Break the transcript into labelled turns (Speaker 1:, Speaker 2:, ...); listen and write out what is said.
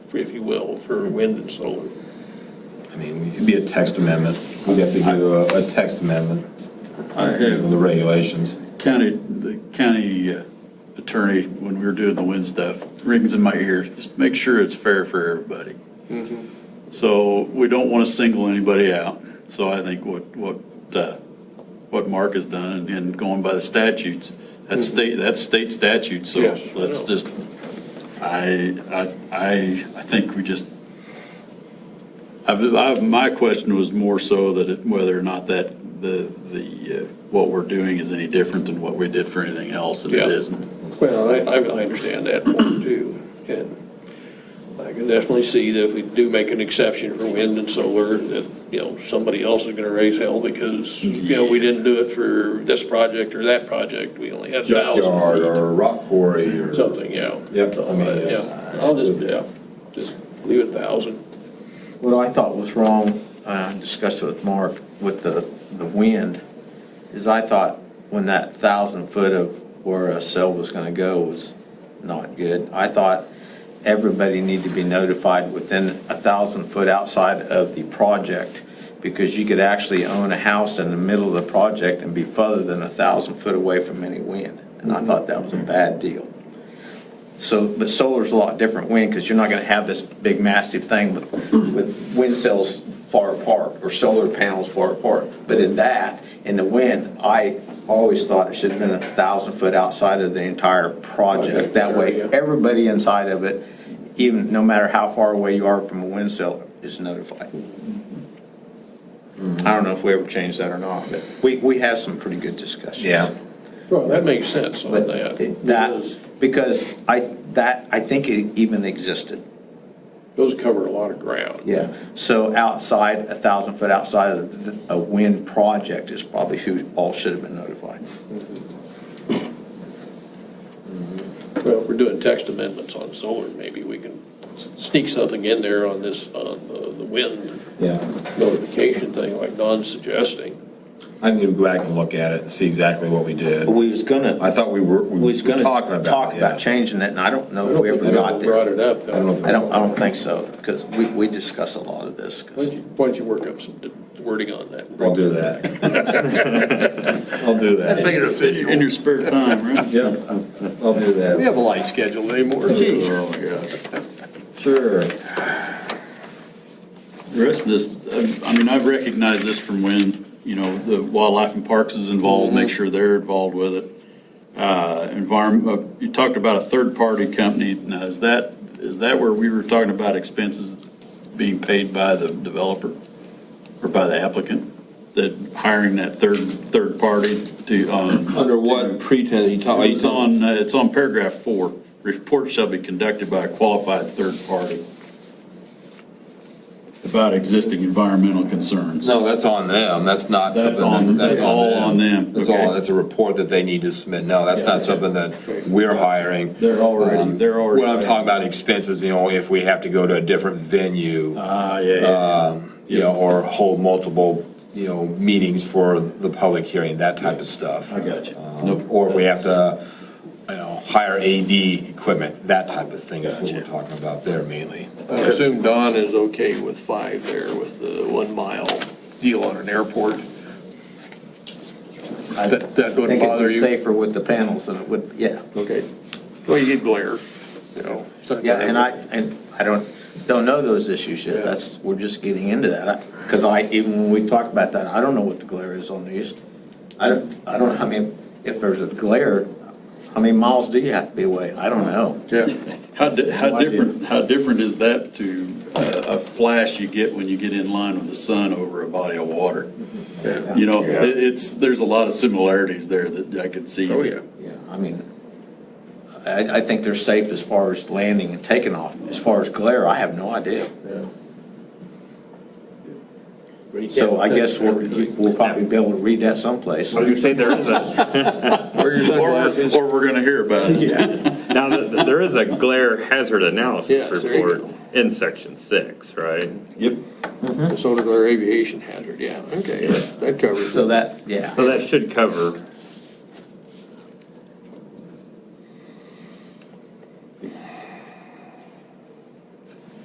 Speaker 1: if you will, for wind and solar.
Speaker 2: I mean, it'd be a text amendment. We'd have to do a, a text amendment
Speaker 3: I
Speaker 2: in the
Speaker 3: have
Speaker 2: regulations.
Speaker 3: county, the county uh, attorney, when we were doing the wind stuff, rings in my ear, just make sure it's fair for everybody. So we don't want to single anybody out. So I think what, what, uh, what Mark has done and- and going by the statutes, that's state, that's state statute, so
Speaker 1: Yes, I
Speaker 3: let's
Speaker 1: know.
Speaker 3: just, I, I, I, I think we just, I've, I've, my question was more so that it- whether or not that, the, the, uh, what we're doing is any different than what we did for anything else, and it
Speaker 1: Yeah.
Speaker 3: isn't.
Speaker 1: Well, I, I I understand that point too, and I can definitely see that if we do make an exception for wind and solar, that, you know, somebody else is gonna raise hell because, you know, we didn't do it for this project or that project, we only had
Speaker 2: Junkyard
Speaker 1: thousand feet.
Speaker 2: or rock quarry or.
Speaker 1: Something, yeah.
Speaker 2: Yep, I mean, it's-
Speaker 1: Yeah, I'll just, yeah, just leave it thousand.
Speaker 4: What I thought was wrong, uh, I discussed it with Mark, with the, the wind, is I thought when that thousand foot of where a cell was gonna go was not good. I thought everybody needed to be notified within a thousand foot outside of the project, because you could actually own a house in the middle of the project and be further than a thousand foot away from any wind. And I thought that was a bad deal. So the solar's a lot different wind, because you're not gonna have this big massive thing with, with wind cells far apart or solar panels far apart. But in that, in the wind, I always thought it should have been a thousand foot outside of the entire project. That way, everybody inside of it, even, no matter how far away you are from a wind cell, is notified. I don't know if we ever changed that or not, but we, we have some pretty good discussions.
Speaker 2: Yeah.
Speaker 1: Well, that makes sense on
Speaker 4: But
Speaker 1: that.
Speaker 4: it-
Speaker 1: Those-
Speaker 4: that, because I, that, I think it even existed.
Speaker 1: Those cover a lot of ground.
Speaker 4: Yeah. So outside, a thousand foot outside of the- a wind project is probably who all should have been notified.
Speaker 1: Well, if we're doing text amendments on solar, maybe we can sneak something in there on this, on the the wind
Speaker 2: Yeah.
Speaker 1: notification thing like Don's suggesting.
Speaker 2: I need to go back and look at it and see exactly what we did.
Speaker 4: But we was gonna,
Speaker 2: I thought we were, we
Speaker 4: we
Speaker 2: were
Speaker 4: was gonna
Speaker 2: talking about it.
Speaker 4: talk
Speaker 2: yeah.
Speaker 4: about changing it, and I don't know if we ever got
Speaker 1: Brought
Speaker 4: there.
Speaker 1: it up.
Speaker 2: I don't know if-
Speaker 4: I don't, I don't think so, because we, we discuss a lot of this. 'cause-
Speaker 1: Why don't you- why don't you work up some wording on that?
Speaker 2: I'll do that. I'll do that.
Speaker 1: it
Speaker 3: In your spare time, right?
Speaker 2: Yeah, I'll do
Speaker 1: We
Speaker 2: that.
Speaker 1: have a light schedule anymore.
Speaker 2: Oh, my gosh. Sure.
Speaker 3: The rest of this, I- I mean, I've recognized this from when, you know, the Wildlife and Parks is involved,
Speaker 5: Mm-hmm.
Speaker 3: make sure they're involved with it. Uh, environment, you talked about a third-party company. Now, is that, is that where we were talking about expenses being paid by the developer or by the applicant? That hiring that third, third party to, um.
Speaker 5: Under what pretense, you talk, are you
Speaker 3: It's
Speaker 5: talking,
Speaker 3: on, uh, it's on paragraph four. Reports shall be conducted by a qualified third party about existing environmental concerns.
Speaker 2: No, that's on them. That's not
Speaker 3: That's
Speaker 2: something.
Speaker 3: on-
Speaker 2: that-
Speaker 3: that's all on them.
Speaker 2: That's all,
Speaker 3: Okay.
Speaker 2: that's a report that they need to submit. No, that's not something that we're hiring.
Speaker 3: They're already,
Speaker 2: Um,
Speaker 3: they're already.
Speaker 2: When I'm talking about expenses, you know, if we have to go to a different venue,
Speaker 3: Ah, yeah, yeah,
Speaker 2: you know, or hold multiple, you know, meetings for the public hearing, that type of stuff.
Speaker 3: I got you.
Speaker 2: Um,
Speaker 3: Nope.
Speaker 2: Or if we have to, you know, hire AV equipment, that type of thing is what we're talking about there mainly.
Speaker 1: I assume Don is okay with five there with the one mile deal on an airport. That, that
Speaker 4: I
Speaker 1: wouldn't
Speaker 4: think it'd
Speaker 1: bother
Speaker 4: be
Speaker 1: you?
Speaker 4: safer with the panels than it would, yeah.
Speaker 1: Okay. Well, you get glare, you know.
Speaker 4: Yeah, and I, and I don't, don't know those issues yet, that's, we're just getting into that, because I, even when we talked about that, I don't know what the glare is on these. I don't, I don't, know. I mean, if there's a glare, how many miles do you have to be away? I don't know.
Speaker 1: Yeah.
Speaker 3: How, di-
Speaker 4: No
Speaker 3: how
Speaker 4: idea.
Speaker 3: different, how different is that to uh, a flash you get when you get in line with the sun over a body of water? You know,
Speaker 2: Yeah.
Speaker 3: it- it's, there's a lot of similarities there that I could see.
Speaker 1: Oh, yeah.
Speaker 4: Yeah, I mean, I, I think they're safe as far as landing and taking off, as far as glare, I have no idea. So I guess we'll, we'll probably be able to read that someplace.
Speaker 6: Well, you say there is a,
Speaker 1: Where your
Speaker 3: Or,
Speaker 1: sunblock
Speaker 3: we're-
Speaker 1: is.
Speaker 3: or we're gonna hear about it.
Speaker 6: now, th- th- there is a glare hazard analysis
Speaker 1: Yes, there you
Speaker 6: report in section six, right?
Speaker 3: Yep.
Speaker 1: The solar glare aviation hazard, yeah, okay, that that covers
Speaker 4: So
Speaker 1: it.
Speaker 4: that, yeah.
Speaker 6: So that should cover